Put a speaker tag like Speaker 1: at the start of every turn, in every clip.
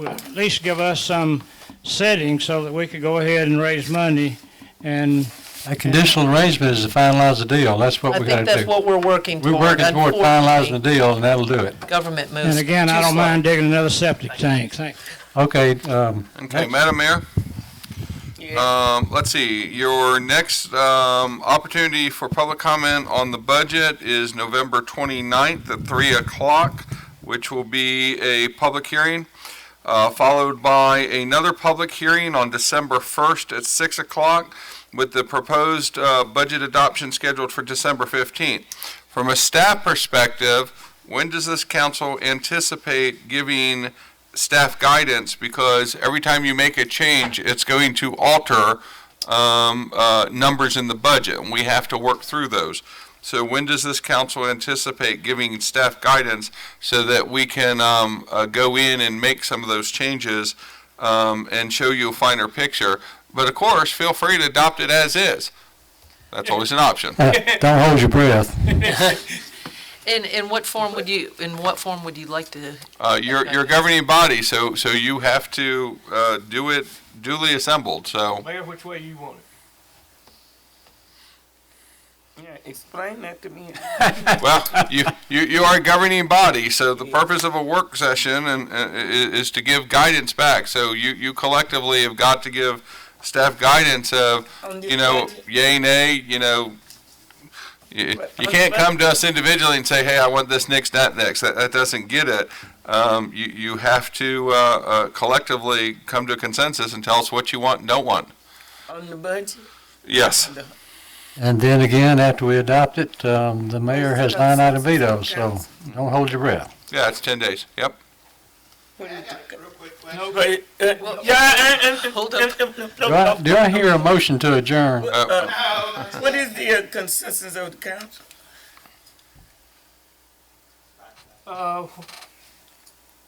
Speaker 1: would at least give us some setting so that we could go ahead and raise money and
Speaker 2: A conditional arrangement is to finalize the deal. That's what
Speaker 3: I
Speaker 2: we gotta
Speaker 3: think that's
Speaker 2: do.
Speaker 3: what we're working
Speaker 2: We're
Speaker 3: toward.
Speaker 2: working toward finalizing the
Speaker 3: Unfortunately,
Speaker 2: deal, and that'll do it.
Speaker 3: Government moves.
Speaker 1: And again, I
Speaker 3: too
Speaker 1: don't
Speaker 3: slow.
Speaker 1: mind digging another septic tank. Thank-
Speaker 2: Okay, um,
Speaker 4: Okay, Madam Mayor,
Speaker 3: Yeah.
Speaker 4: um, let's see, your next, um, opportunity for public comment on the budget is November 29th at three o'clock, which will be a public hearing, uh, followed by another public hearing on December first at six o'clock with the proposed, uh, budget adoption scheduled for December 15th. From a staff perspective, when does this council anticipate giving staff guidance because every time you make a change, it's going to alter um, uh, numbers in the budget, and we have to work through those. So when does this council anticipate giving staff guidance so that we can um, uh, go in and make some of those changes um, and show you a finer picture? But of course, feel free to adopt it as is. That's always an option.
Speaker 2: uh, don't hold your breath.
Speaker 3: In, in what form would you, in what form would you like to?
Speaker 4: Uh, You're you're a governing body, so so you have to uh, do it duly assembled, so.
Speaker 5: Mayor, which way you want it?
Speaker 6: Yeah, explain that to me.
Speaker 4: Well, you, you, you are a governing body, so the purpose of a work session and, uh, i- is to give guidance back. So you, you collectively have got to give staff guidance of,
Speaker 6: On this
Speaker 4: you know,
Speaker 6: budget.
Speaker 4: yay, nay, you know. You,
Speaker 6: But-
Speaker 4: you
Speaker 6: but-
Speaker 4: can't
Speaker 6: but-
Speaker 4: come to us individually and say, hey, I want this next, that next. That, that doesn't get it. Um, you, you have to, uh, uh, collectively come to a consensus and tell us what you want and don't want.
Speaker 6: On the budget?
Speaker 4: Yes.
Speaker 2: And then again, after we adopt it, um, the mayor has nine item veto, so don't hold your breath.
Speaker 4: Yeah, it's ten days. Yep. Uh,
Speaker 6: What do you think?
Speaker 5: No,
Speaker 6: But, uh, Yeah, and, and,
Speaker 3: Hold
Speaker 6: and-
Speaker 3: up.
Speaker 6: and- and-
Speaker 2: Do I, do I hear a motion to adjourn?
Speaker 4: Uh,
Speaker 6: What is the uh, consensus of the council?
Speaker 5: uh,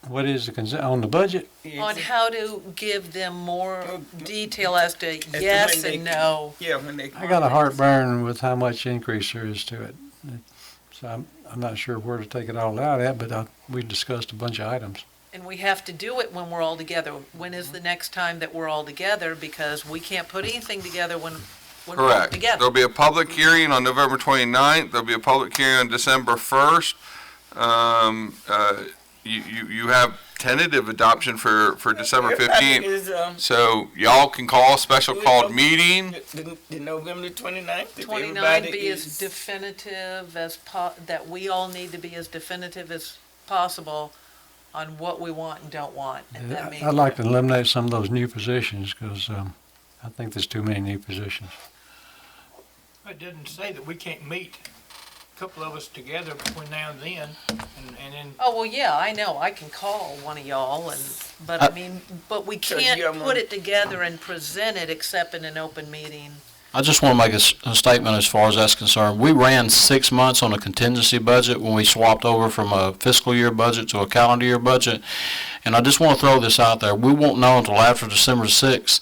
Speaker 2: What is the consent, on the budget?
Speaker 3: On how to give them more detail as to
Speaker 6: Oh, to
Speaker 3: yes
Speaker 6: when they
Speaker 3: and no.
Speaker 6: Yeah, when they.
Speaker 2: I got a heartburn with how much increase there is to it. So I'm, I'm not sure where to take it all out at, but I, we discussed a bunch of items.
Speaker 3: And we have to do it when we're all together. When is the
Speaker 6: Mm-hmm.
Speaker 3: next time that we're all together? Because we can't put anything together when, when we're all
Speaker 4: Correct.
Speaker 3: together.
Speaker 4: There'll be a public hearing on November 29th, there'll be a public hearing on December 1st. Um, uh, You, you, you have tentative adoption for, for December
Speaker 6: Everybody
Speaker 4: 15th.
Speaker 6: Is, um,
Speaker 4: So y'all can call a special called meeting.
Speaker 6: the- the, the November twenty-ninth?
Speaker 3: Twenty-nine be as definitive as po, that we all need to be as definitive as possible on what we want and don't want. And that means-
Speaker 2: I'd like to eliminate some of those new positions, because, um, I think there's too many new positions.
Speaker 5: it didn't say that we can't meet, a couple of us together between now and then, and, and then
Speaker 3: Oh, well, yeah, I know, I can call one of y'all and, but I mean, but we
Speaker 6: Sure,
Speaker 3: can't
Speaker 6: you got
Speaker 3: put
Speaker 6: one.
Speaker 3: it together and present it except in an open meeting.
Speaker 7: I just want to make a s- a statement as far as that's concerned. We ran six months on a contingency budget when we swapped over from a fiscal year budget to a calendar year budget. And I just want to throw this out there. We won't know until after December 6th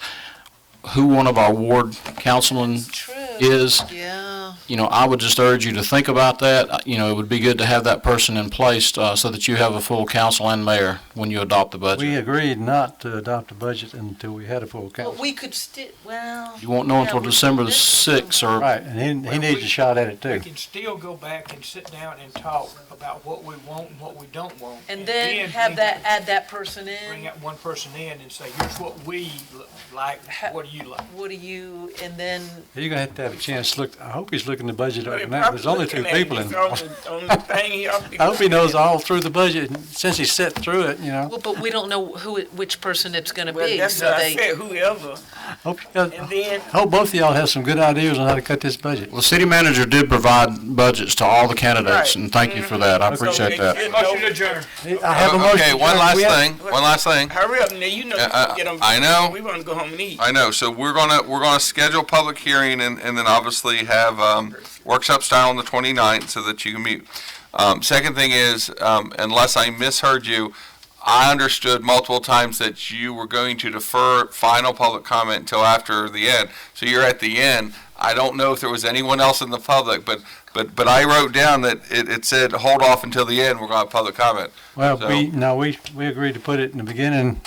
Speaker 7: who one of our ward councilmen
Speaker 3: True,
Speaker 7: is.
Speaker 3: yeah.
Speaker 7: You know, I would just urge you to think about that. Uh, You know, it would be good to have that person in place uh, so that you have a full council and mayor when you adopt the
Speaker 2: We
Speaker 7: budget.
Speaker 2: agreed not to adopt a budget until we had a full
Speaker 3: But
Speaker 2: council.
Speaker 3: we could sti, well.
Speaker 7: You won't know
Speaker 3: yeah,
Speaker 7: until
Speaker 3: we-
Speaker 7: December the
Speaker 3: this-
Speaker 7: 6th or
Speaker 2: Right, and he, he needs a shot at it
Speaker 5: we
Speaker 2: too.
Speaker 5: can still go back and sit down and talk about what we want and what we don't want.
Speaker 3: And then
Speaker 5: we
Speaker 3: have that,
Speaker 5: can
Speaker 3: add that person
Speaker 5: Bring
Speaker 3: in,
Speaker 5: that one person in and say, here's what we l- like,
Speaker 3: Ha-
Speaker 5: what do you like?
Speaker 3: what do you, and then,
Speaker 2: You're gonna have to have a chance to look, I hope he's looking the budget up now, there's only two people in.
Speaker 6: On
Speaker 2: I
Speaker 6: the, on the thing he ought to be
Speaker 2: hope he
Speaker 6: looking
Speaker 2: knows
Speaker 6: at.
Speaker 2: all through the budget, and since he sat through it, you know.
Speaker 3: well, but we don't know who, it- which person it's gonna
Speaker 6: Well,
Speaker 3: be,
Speaker 6: that's
Speaker 3: so
Speaker 6: what I
Speaker 3: they,
Speaker 6: said, whoever.
Speaker 2: Hope, uh,
Speaker 6: And then,
Speaker 2: hope both of y'all have some good ideas on how to cut this budget.
Speaker 7: Well, the city manager did provide budgets to all the candidates,
Speaker 6: Right.
Speaker 7: and thank you for that. I
Speaker 2: Okay.
Speaker 7: appreciate that.
Speaker 5: Motion adjourned.
Speaker 2: I have a motion.
Speaker 4: Okay, one last
Speaker 2: We have-
Speaker 4: thing, one last thing.
Speaker 6: Hurry up, now, you know, you
Speaker 4: Uh,
Speaker 6: can get them.
Speaker 4: I know.
Speaker 6: We wanna go home and eat.
Speaker 4: I know, so we're gonna, we're gonna schedule public hearing and, and then obviously have, um, workshop style on the 29th so that you can meet. Um, second thing is, um, unless I misheard you, I understood multiple times that you were going to defer final public comment until after the end. So you're at the end. I don't know if there was anyone else in the public, but, but, but I wrote down that it, it said, hold off until the end, we're gonna have public comment.
Speaker 2: Well,
Speaker 4: So-
Speaker 2: we, no, we, we agreed to put it in the beginning